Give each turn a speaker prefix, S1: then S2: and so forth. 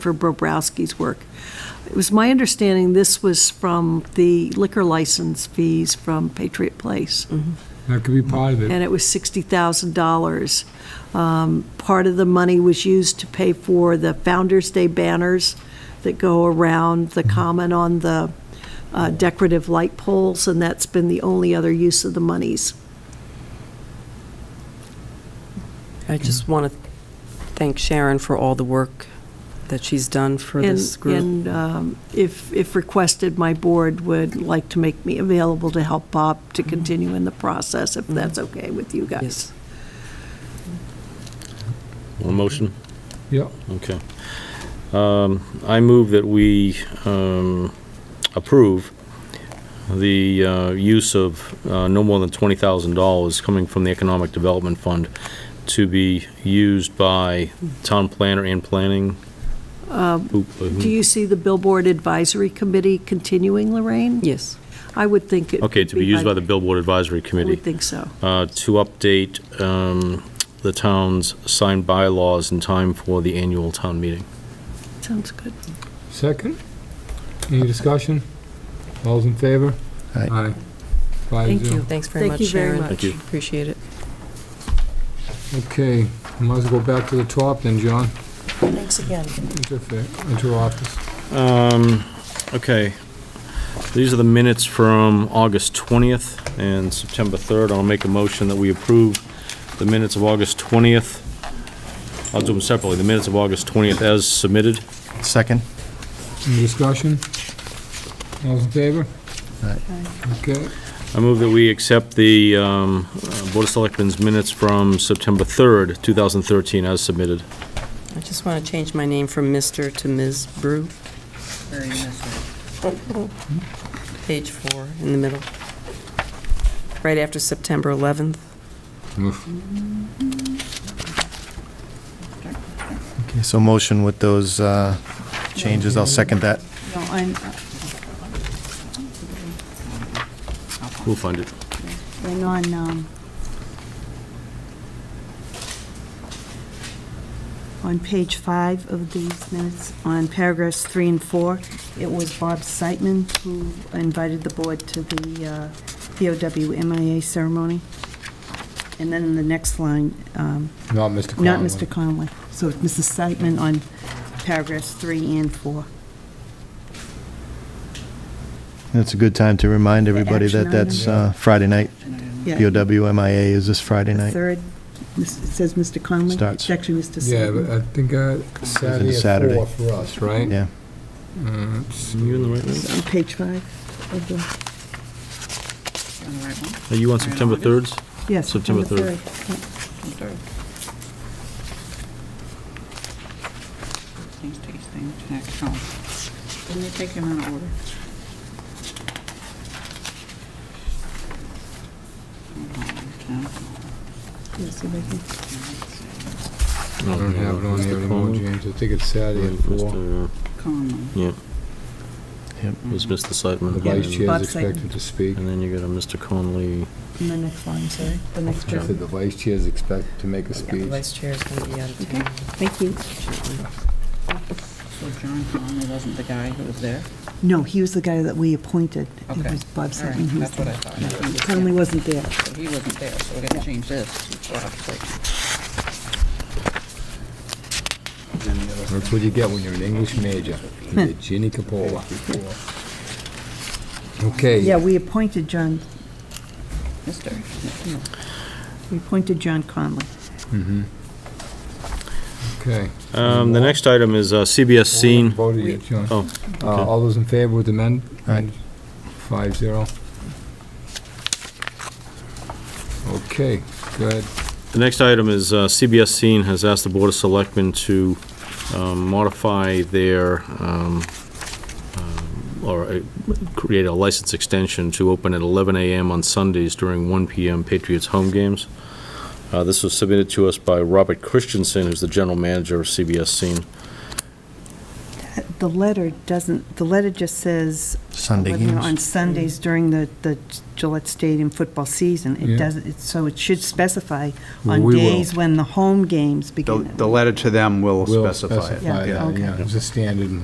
S1: for Bobrowski's work. It was my understanding this was from the liquor license fees from Patriot Place,
S2: That could be part of it.
S1: and it was $60,000. Um, Part of the money was used to pay for the Founder's Day banners that go around the common on the uh, decorative light poles, and that's been the only other use of the monies.
S3: I just
S4: Mm-hmm.
S3: want to thank Sharon for all the work that she's done for
S1: And-
S3: this group.
S1: And um, if, if requested, my board would like to make me available to help Bob to continue in the process, if that's okay with you guys.
S3: Mm-hmm. Yes.
S4: One motion?
S2: Yeah,
S4: Okay. Um, I move that we um, approve the uh, use of uh, no more than $20,000 coming from the Economic Development Fund to be used by town planner and planning. Who-
S1: Um, Do
S4: who-
S1: you see the Billboard Advisory Committee continuing, Lorraine?
S3: Yes,
S1: I would think it.
S4: Okay, to be used by the Billboard Advisory
S1: I
S4: Committee.
S1: would think so.
S4: uh, to update um, the town's signed bylaws in time for the annual town meeting.
S1: Sounds good.
S2: second? Any discussion? All's in favor?
S5: Aye.
S2: Five
S1: Thank
S2: zero.
S1: you.
S3: thanks very
S1: Thank
S3: much,
S1: you very
S3: Sharon.
S1: much.
S4: Thank you.
S3: Appreciate it.
S2: Okay, might as well go back to the top then, John,
S1: Thanks again.
S2: into fa- into office.
S4: Um, Okay. These are the minutes from August 20th and September 3rd. I'll make a motion that we approve the minutes of August 20th. I'll do them separately. The minutes of August 20th as submitted.
S5: Second?
S2: Any discussion? All's in favor?
S5: Aye.
S2: Okay,
S4: I move that we accept the um, uh, Board of Selectmen's minutes from September 3rd, 2013 as submitted.
S3: I just want to change my name from Mr. to Ms. Brew. Page four, in the middle. Right after September 11th.
S5: Okay, so motion with those uh, changes, I'll second that.
S6: No, I'm,
S4: We'll find it.
S6: and on, um, on page five of these minutes, on paragraphs three and four, it was Bob Siteman who invited the board to the uh, POW MIA ceremony. And then in the next line, um,
S2: not Mr. Conlon.
S6: not Mr. Conway, so it's Mrs. Siteman on paragraphs three and four.
S5: It's a good time to remind everybody
S6: action
S5: that that's
S2: item.
S5: uh, Friday night.
S6: Yeah.
S5: POW MIA is this Friday
S6: The
S5: night.
S6: third, it says Mr. Conway.
S5: Starts.
S6: It's actually Mr.
S2: Yeah,
S6: Siteman.
S2: but I think uh, Saturday at
S5: Saturday.
S2: four for us, right?
S5: Yeah.
S2: Uh, let's see.
S4: You in the right minute?
S6: It's on page five of the,
S4: Are you on September 3rd?
S6: yes.
S4: September
S6: on the
S4: third.
S7: These these things next home. Didn't they take them out of order?
S6: Yes, if I can-
S2: I don't have it on
S4: Mr.
S2: here anymore,
S4: Conlon?
S2: James, I think it's Saturday at four.
S4: Mr.
S7: Conlon.
S4: Yeah.
S5: Yep.
S4: Was Mr. Siteman
S2: The
S4: again?
S2: vice chair
S6: Bob
S2: is
S6: Seitan.
S2: expected to speak.
S4: And then you got a Mr. Conley.
S6: in the next line, sorry, the next
S2: I said
S6: one.
S2: the vice chair is expected to make a
S3: The
S2: speech.
S3: vice chair is going to be out of town.
S6: Thank you.
S7: So John Conlon wasn't the guy who was there?
S6: No, he was the guy that we appointed. It
S7: Okay.
S6: was Bob
S7: All right,
S6: Sutton who was
S7: that's what I
S6: there.
S7: thought. I couldn't just-
S6: Conley wasn't there.
S7: So he wasn't there, so we're gonna change this. to Bob Seitan.
S2: That's what you get when you're an English major. You get Ginny Capola.
S6: Yeah,
S2: Okay,
S6: we appointed John,
S7: Mister.
S6: we appointed John Conley.
S2: okay.
S4: Um, the next item is uh, CBS Scene.
S2: Voted yet, John.
S4: Oh,
S2: Uh, All those in favor with the men?
S5: Aye.
S2: Five zero. Okay, good.
S4: the next item is uh, CBS Scene has asked the Board of Selectmen to um, modify their, um, um, or uh, create a license extension to open at 11 a.m. on Sundays during 1 p.m. Patriots home games. Uh, This was submitted to us by Robert Christensen, who's the general manager of CBS Scene.
S6: the letter doesn't, the letter just says.
S5: Sunday
S6: whether or not
S5: games.
S6: On Sundays during the, the Gillette Stadium football season.
S2: Yeah.
S6: It doesn't, it's- so it should specify
S2: Well,
S6: on
S2: we will.
S6: days when the home games
S8: The
S6: begin.
S8: the letter to them will
S2: We'll
S8: specify it.
S6: Yeah,
S2: that,
S6: okay.
S2: Yeah, it's a standard.